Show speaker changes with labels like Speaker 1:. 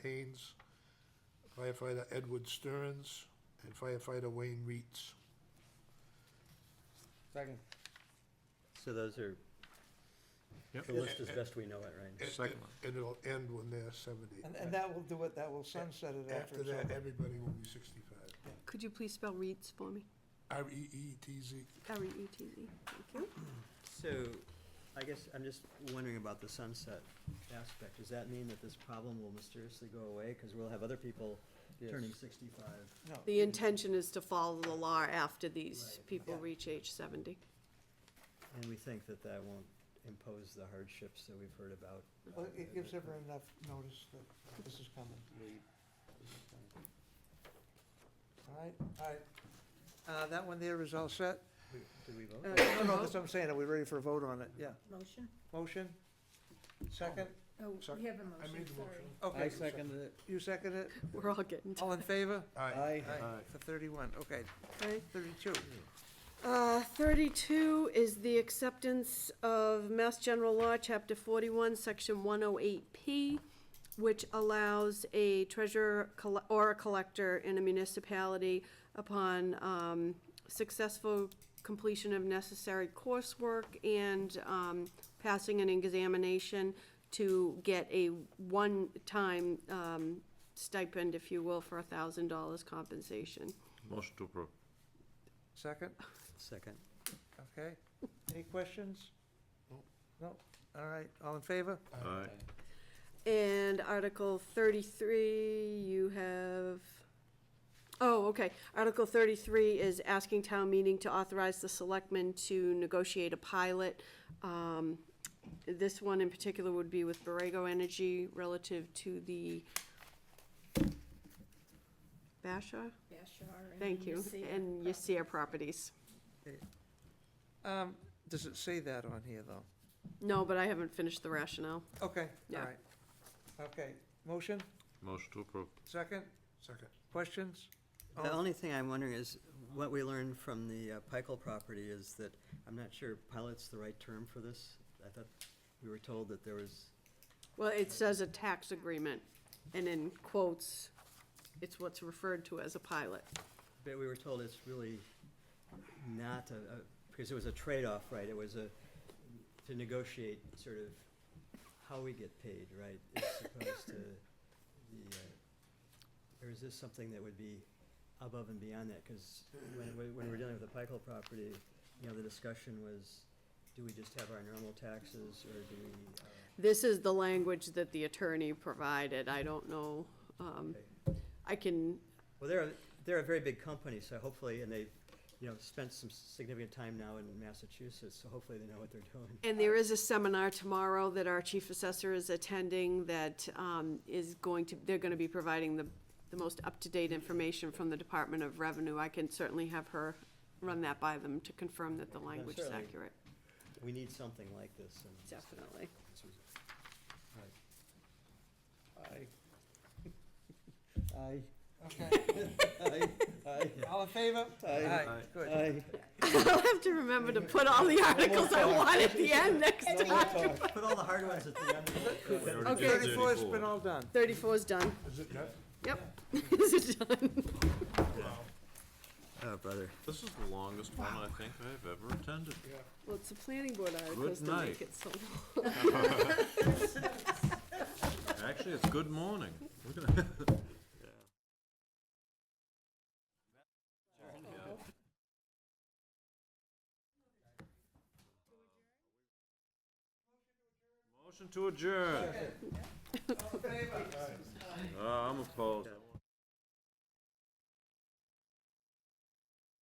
Speaker 1: firefighter Edward Stearns, and firefighter Wayne Reeds.
Speaker 2: Second.
Speaker 3: So those are,
Speaker 4: Yep.
Speaker 3: the list as best we know it, right?
Speaker 1: And-
Speaker 4: Second one.
Speaker 1: And it'll end when they're seventy.
Speaker 2: And, and that will do it, that will sunset it after
Speaker 1: After
Speaker 2: it's
Speaker 1: that,
Speaker 2: over.
Speaker 1: everybody will be sixty-five.
Speaker 5: Could you please spell Reeds for me?
Speaker 1: R E E T Z.
Speaker 5: R-E-E-T-Z, thank you.
Speaker 3: So, I guess I'm just wondering about the sunset aspect. Does that mean that this problem will mysteriously go away? Because we'll have other people turning sixty-five.
Speaker 2: No,
Speaker 5: The intention is to follow the law after these
Speaker 3: Right.
Speaker 5: people
Speaker 2: Yeah.
Speaker 5: reach age seventy.
Speaker 3: And we think that that won't impose the hardships that we've heard about.
Speaker 2: well, it gives everyone enough notice that this is coming. All right, all right. Uh, that one there is all set?
Speaker 3: We- Do we vote?
Speaker 5: Uh,
Speaker 2: No, no,
Speaker 5: vote?
Speaker 2: that's what I'm saying, are we ready for a vote on it? Yeah.
Speaker 6: Motion?
Speaker 2: Motion? Second?
Speaker 6: Oh,
Speaker 1: Sec-
Speaker 6: we have a
Speaker 1: I
Speaker 6: motion,
Speaker 1: made the
Speaker 6: sorry.
Speaker 1: motion.
Speaker 3: Uh,
Speaker 2: Okay,
Speaker 4: seconded it.
Speaker 2: you second it?
Speaker 5: We're all getting,
Speaker 2: All in favor?
Speaker 1: Aye.
Speaker 4: Aye.
Speaker 2: For thirty-one, okay,
Speaker 5: okay?
Speaker 2: thirty-two.
Speaker 5: Uh, 32 is the acceptance of Mass General Law, Chapter 41, Section 108P, which allows a treasurer colle- or a collector in a municipality upon um, successful completion of necessary coursework and um, passing an examination to get a one-time um, stipend, if you will, for a $1,000 compensation.
Speaker 4: Motion to approve.
Speaker 2: Second,
Speaker 3: Second.
Speaker 2: okay. Any questions?
Speaker 1: Nope.
Speaker 2: No, all right, all in favor?
Speaker 4: Aye.
Speaker 5: And Article thirty-three, you have, oh, okay. Article thirty-three is asking town meeting to authorize the selectmen to negotiate a pilot. Um, this one in particular would be with Borrego Energy relative to the Basha,
Speaker 6: Bashar and
Speaker 5: thank you,
Speaker 6: Yasir.
Speaker 5: and Yasir properties.
Speaker 2: Um, does it say that on here, though?
Speaker 5: No, but I haven't finished the rationale.
Speaker 2: Okay, all
Speaker 5: Yeah.
Speaker 2: right. Okay, motion,
Speaker 4: Motion to approve.
Speaker 2: second,
Speaker 1: Second.
Speaker 2: questions? All
Speaker 3: The
Speaker 2: in-
Speaker 3: only thing I'm wondering is, what we learned from the uh, Pikel property is that, I'm not sure pilot's the right term for this. I thought we were told that there was,
Speaker 5: Well, it says a tax agreement, and in quotes, it's what's referred to as a pilot.
Speaker 3: but we were told it's really not a, a- because it was a trade-off, right? It was a, to negotiate sort of how we get paid, right? As opposed to the, uh, or is this something that would be above and beyond that? Because when, we- when we we're dealing with the Pikel property, you know, the discussion was, do we just have our normal taxes or do we, uh,
Speaker 5: This is the language that the attorney provided, I don't know, um,
Speaker 3: pay?
Speaker 5: I can,
Speaker 3: Well, they're, a- they're a very big company, so hopefully, and they, you know, spent some significant time now in Massachusetts, so hopefully they know what they're doing.
Speaker 5: and there is a seminar tomorrow that our chief assessor is attending that, um, is going to, they're gonna be providing the, the most up-to-date information from the Department of Revenue, I can certainly have her run that by them to confirm that the language is
Speaker 3: certainly.
Speaker 5: accurate,
Speaker 3: We need something like this. and-
Speaker 5: definitely.
Speaker 2: Aye.
Speaker 3: Aye.
Speaker 2: Okay,
Speaker 3: Aye. Aye.
Speaker 2: all in favor? Aye, good.
Speaker 5: I'll have to remember to put all the articles I want at the end next time.
Speaker 3: Put all the hard ones at the end.
Speaker 5: Okay.
Speaker 2: Thirty-four's been all done.
Speaker 5: Thirty-four is done,
Speaker 1: Is it done?
Speaker 5: yep, is it done?
Speaker 3: Oh, brother.
Speaker 4: This is the longest one I think I've ever attended.
Speaker 1: Yeah.
Speaker 5: Well, it's the planning board articles
Speaker 4: Good
Speaker 5: to
Speaker 4: night.
Speaker 5: make it so long.
Speaker 4: Actually, it's good morning. Motion to adjourn. Uh, I'm opposed. I won't.